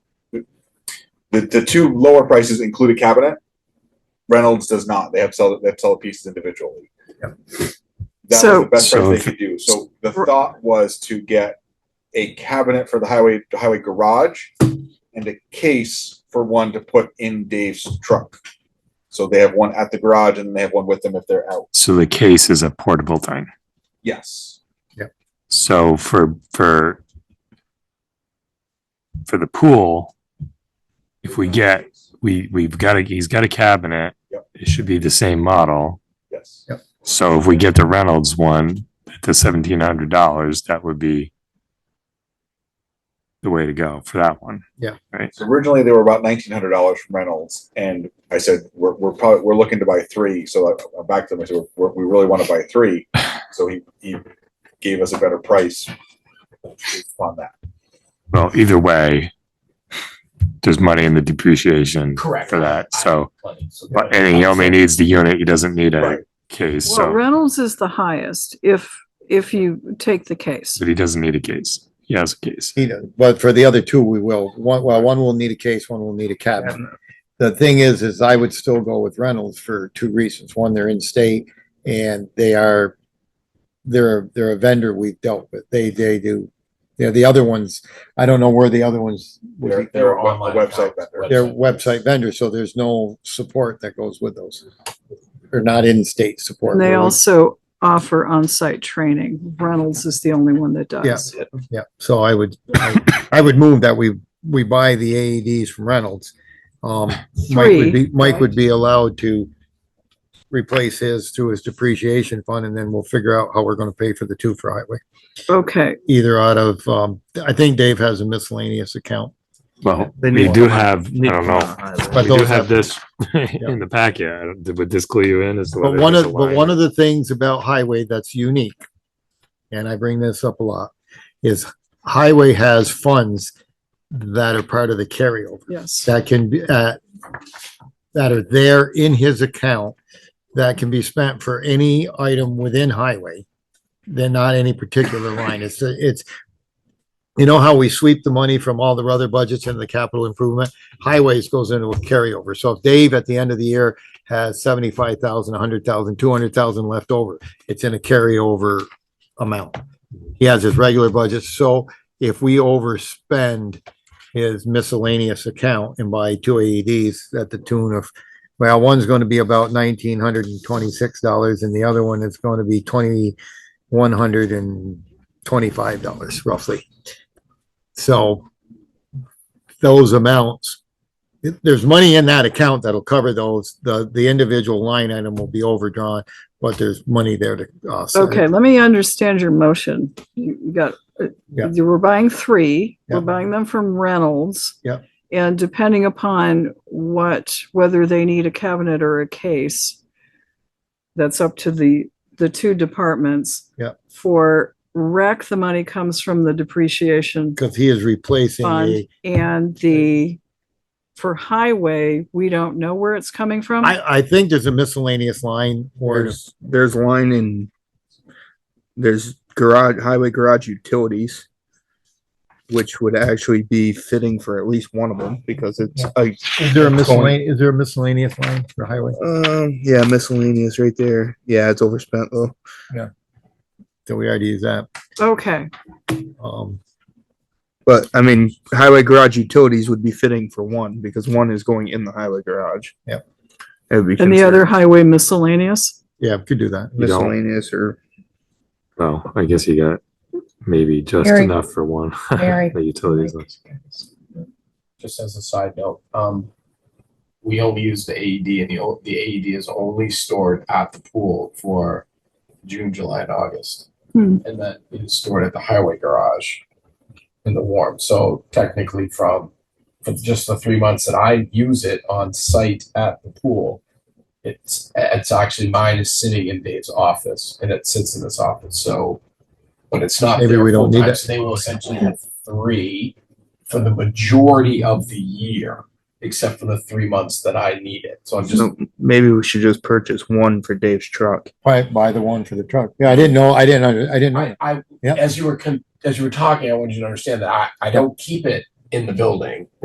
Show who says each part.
Speaker 1: The, the two lower prices include a cabinet. Reynolds does not. They have to sell, they have to sell the pieces individually. That
Speaker 2: So-
Speaker 1: was the best
Speaker 3: So
Speaker 1: price
Speaker 3: if-
Speaker 1: they could do. So the thought was to get a cabinet for the highway, highway garage and a case for one to put in Dave's truck. So they have one at the garage and they have one with them if they're out.
Speaker 3: So the case is a portable thing.
Speaker 1: Yes.
Speaker 3: So for, for for the pool, if we get, we, we've got a, he's got a cabinet.
Speaker 1: Yep.
Speaker 3: It should be the same model.
Speaker 1: Yes.
Speaker 3: So if we get the Reynolds one at the seventeen hundred dollars, that would be the way to go for that one.
Speaker 1: So originally they were about nineteen hundred dollars from Reynolds, and I said we're we're probably we're looking to buy three. So I, I backed them. I said we're, we really want to buy three. So he he gave us a better price on that.
Speaker 3: Well, either way, there's money in the depreciation
Speaker 4: Correct.
Speaker 3: for that. So,
Speaker 4: Plenty, so-
Speaker 3: but- and he only needs the unit. He doesn't need
Speaker 1: Right.
Speaker 3: a case.
Speaker 2: Well,
Speaker 3: So,
Speaker 2: Reynolds is the highest if, if you take the case.
Speaker 3: but he doesn't need a case. He has a case.
Speaker 5: need it, but for the other two, we will. One, well, one will need a case, one will need a cabinet. The thing is, is I would still go with Reynolds for two reasons. One, they're in state and they are, they're, they're a vendor we've dealt with. They, they do, you know, the other ones, I don't know where the other ones, would
Speaker 1: They're,
Speaker 5: be.
Speaker 1: they're
Speaker 4: They're
Speaker 1: a web-
Speaker 4: online
Speaker 1: a website
Speaker 4: accounts,
Speaker 1: vendor.
Speaker 4: right.
Speaker 5: they're website vendors, so there's no support that goes with those. They're not in-state support.
Speaker 2: And they
Speaker 5: We're-
Speaker 2: also offer on-site training. Reynolds is the only one that does.
Speaker 5: Yeah, so I would, I I would move that we, we buy the AEDs from Reynolds. Um, Mike
Speaker 2: Three,
Speaker 5: would be, Mike would
Speaker 2: right?
Speaker 5: be allowed to replace his through his depreciation fund, and then we'll figure out how we're gonna pay for the two for highway.
Speaker 2: Okay,
Speaker 5: Either out of, um, I think Dave has a miscellaneous account.
Speaker 3: Well,
Speaker 6: They
Speaker 3: we
Speaker 6: need
Speaker 3: do
Speaker 6: one.
Speaker 3: have, I don't know.
Speaker 5: But
Speaker 3: We do
Speaker 5: those
Speaker 3: have
Speaker 5: have-
Speaker 3: this in the packet. I don't- Would this clue you in as to
Speaker 5: But
Speaker 3: whether
Speaker 5: one
Speaker 3: there's
Speaker 5: of,
Speaker 3: a
Speaker 5: but
Speaker 3: line?
Speaker 5: one of the things about highway that's unique, and I bring this up a lot, is highway has funds that are part of the carryover.
Speaker 2: yes.
Speaker 5: that can be, uh, that are there in his account that can be spent for any item within highway. They're not any particular line. It's, it's, you know how we sweep the money from all the other budgets into the capital improvement? Highways goes into a carryover. So if Dave at the end of the year has seventy-five thousand, a hundred thousand, two hundred thousand left over, it's in a carryover amount. He has his regular budget. So if we overspend his miscellaneous account and buy two AEDs at the tune of, well, one's gonna be about nineteen hundred and twenty-six dollars and the other one is gonna be twenty-one hundred and twenty-five dollars roughly. So those amounts, th- there's money in that account that'll cover those. The, the individual line item will be overdrawn, but there's money there to uh, offset.
Speaker 2: Okay, let me understand your motion. You you got, uh,
Speaker 5: Yeah.
Speaker 2: you were buying three, we're
Speaker 5: Yeah.
Speaker 2: buying them from Reynolds.
Speaker 5: Yeah.
Speaker 2: And depending upon what, whether they need a cabinet or a case, that's up to the, the two departments.
Speaker 5: Yeah.
Speaker 2: For rec, the money comes from the depreciation
Speaker 5: Cause he is replacing
Speaker 2: fund
Speaker 5: the,
Speaker 2: and the, for highway, we don't know where it's coming from.
Speaker 5: I, I think there's a miscellaneous line or
Speaker 6: There's, there's line in, there's garage, highway garage utilities, which would actually be fitting for at least one of them because it's, a
Speaker 5: Is there a
Speaker 6: That's going-
Speaker 5: miscellaneous, is there a miscellaneous line for highway
Speaker 6: um, yeah, miscellaneous right there. Yeah, it's overspent though.
Speaker 5: that we already use that?
Speaker 2: Okay,
Speaker 5: Um,
Speaker 6: But I mean, highway garage utilities would be fitting for one because one is going in the highway garage.
Speaker 5: Yep.
Speaker 6: It would be.
Speaker 2: and the other
Speaker 6: considered
Speaker 2: highway miscellaneous?
Speaker 5: yeah, we could do that.
Speaker 3: You don't-
Speaker 6: Miscellaneous or
Speaker 3: Well, I guess you got maybe just
Speaker 7: Very-
Speaker 3: enough for one.
Speaker 7: very
Speaker 3: The utilities. one.
Speaker 4: Just as a side note, um, we only use the AED and the, o- the AED is only stored at the pool for June, July and August.
Speaker 2: Hmm.
Speaker 4: And that is stored at the highway garage in the warm. So technically from, for just the three months that I use it on site at the pool, it's, it's actually mine is sitting in Dave's office and it sits in this office. So, but it's not.
Speaker 5: Maybe
Speaker 4: there
Speaker 5: we don't need
Speaker 4: full-time,
Speaker 5: it.
Speaker 4: so They will essentially have three for the majority of the year, except for the three months that I need it. So I'm just
Speaker 6: so maybe we should just purchase one for Dave's truck.
Speaker 5: Buy, buy the one for the truck. Yeah, I didn't know, I didn't, under- I didn't know.
Speaker 4: I, I,
Speaker 5: Yeah.
Speaker 4: as you were, con- as you were talking, I wanted you to understand that I, I don't keep it in the building.